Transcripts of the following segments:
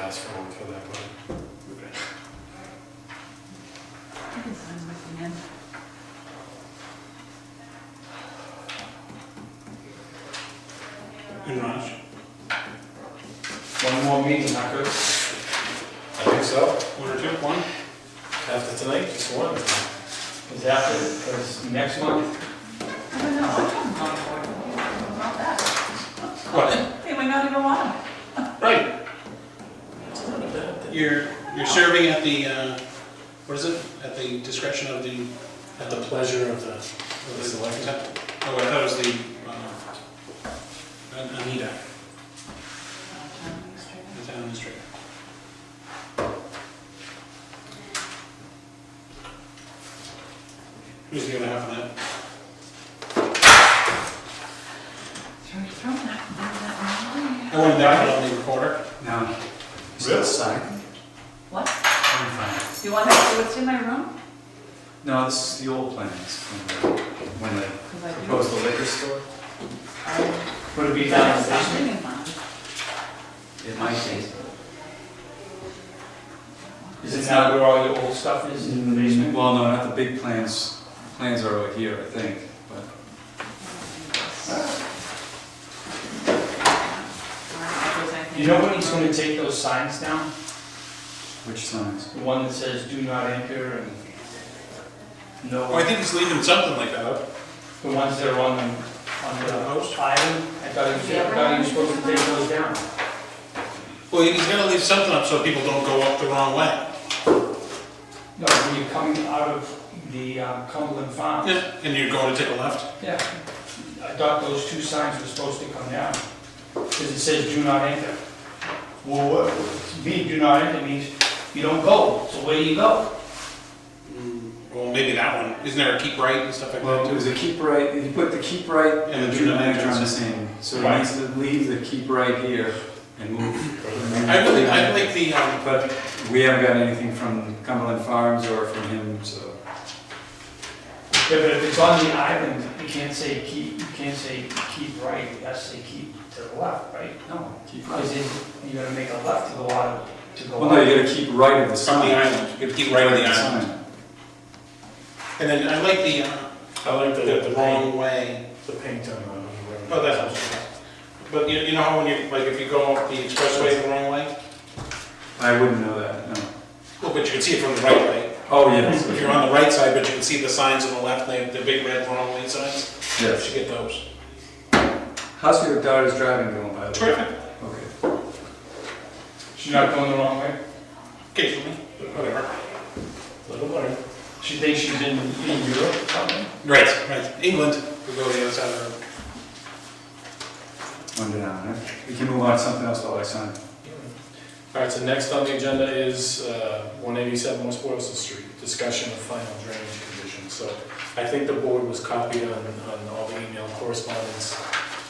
ask for one for that one. I can find my pen. Pretty much. One more meeting, Hucker. I think so. One or two, one? After tonight, just one. Is that, is next month? I don't know, I'm talking about it. What about that. What? They might not even want it. Right, It's not a bad thing. you're, you're serving at the, uh, what is it, at the discretion of the. At the pleasure of the, of the- Select. Oh, I thought it was the, uh, An- Anita, the town administrator. Who's the other half of that? Throw it, throw that, throw that away. I wanted that one on the recorder. No. Really? Sign. What? I'm fine. You want to see what's in my room? No, this is the old plans, from the- when they Because I Oh, do. proposed the liquor store. I- Would it be down in There's the basement? something in mine. It might be. Is it not where all your old stuff is, in the basement? Well, no, not the big plans, plans are over here, I think, but. Alright, if there's anything- You know when he's gonna take those signs down? Which signs? The one that says do not enter and no, Oh, I think he's leaving something like that up. the ones that are on the, on the Post? island? I thought he was, I thought he was supposed to take those down. Well, he's gonna leave something up so people don't go up the wrong way. No, when you're coming out of the um, Cumberland Farm. Yeah, and you're going to take a left. Yeah. I thought those two signs were supposed to come down, because it says do not enter. Well, what, to me, do not enter means you don't go, so where do you go? Well, maybe that one, isn't there a keep right and stuff like that Well, it too? was a keep right, you put the keep right and the do junior not manager on the enter. same, so it Right. needs to leave the keep right here and move. I really, I like the, um, But we haven't got anything from Cumberland Farms or from him, so. Yeah, but if it's on the island, you can't say keep, you can't say keep right, you have to say keep to the left, right? No, keep Because then you're gonna make a left to go out, to go Well, no, out. you gotta keep right of the from the sign. island, you have to keep right on the island. And then I like the, uh, I like the, the the paint, wrong way. the paint on the. Oh, that helps. But you, you know how when you, like, if you go up the expressway the wrong way? I wouldn't know that, no. Well, but you can see it from the right way. Oh, yes. If you're on the right side, but you can see the signs on the left, they have the big red wrong way signs. You Yes. should get those. How's your daughter's driving going, by the way? Terrific. Okay. She's not going the wrong way. Occasionally, but whatever. Little one. She thinks she's in, in Europe or something. Right, right. England, we go the other side of the road. One down, eh? We can move on to something else while I sign. All right, so next on the agenda is uh, 187 West Boylston Street, discussion of final drainage conditions. So I think the board was copied on, on all the email correspondence.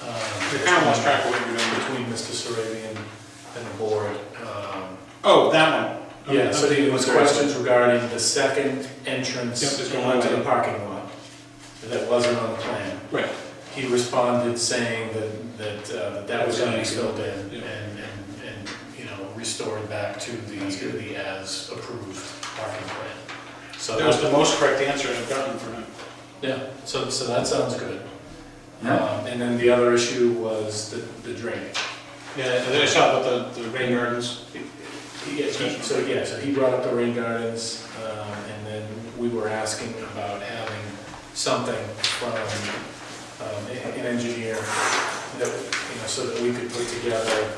um, We kind of lost track of what you're doing. Between Mr. Saravian and the board. Um, Oh, that one. Okay, Yeah, so okay. there was questions regarding the second entrance Yep, there's no onto way. the parking lot that wasn't on the plan Right. he responded saying that, that uh, that was gonna be filled in Yeah. and, and, and, you know, restored back to the, That's good. the as-approved parking plan. So That was that, the most correct answer I've gotten for now. yeah, so, so that sounds good. Yeah. Um, And then the other issue was the, the drainage. Yeah, and then I saw about the, the rain gardens. He- he- So, yeah, so he brought up the rain gardens, um, and then we were asking about having something from um, a- an engineer that, you know, so that we could put together,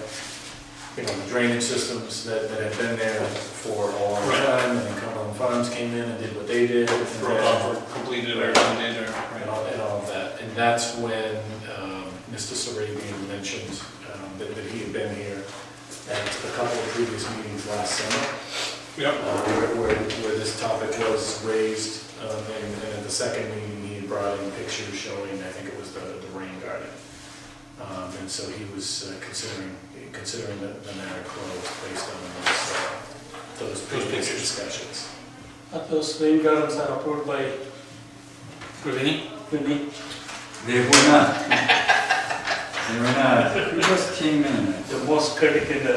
you know, the drainage systems that, that had been there for a long Right. time, and then Cumberland Farms came in and did what they did. and for then- for completed or done it or. and all, and all of that. And that's when um, Mr. Sarabian mentioned um, that, that he had been here at a couple of previous meetings last summer, Yep. uh, where, where where this topic was raised, um, and and at the second meeting, he had brought in pictures showing, I think it was the, the rain garden. Um, And so he was uh, considering, considering the the matter closed based on those, uh, those previous pictures. discussions. those rain gardens are approved by Ravini? Vinnie. They were not. They were not. Who just came in? The most critical uh,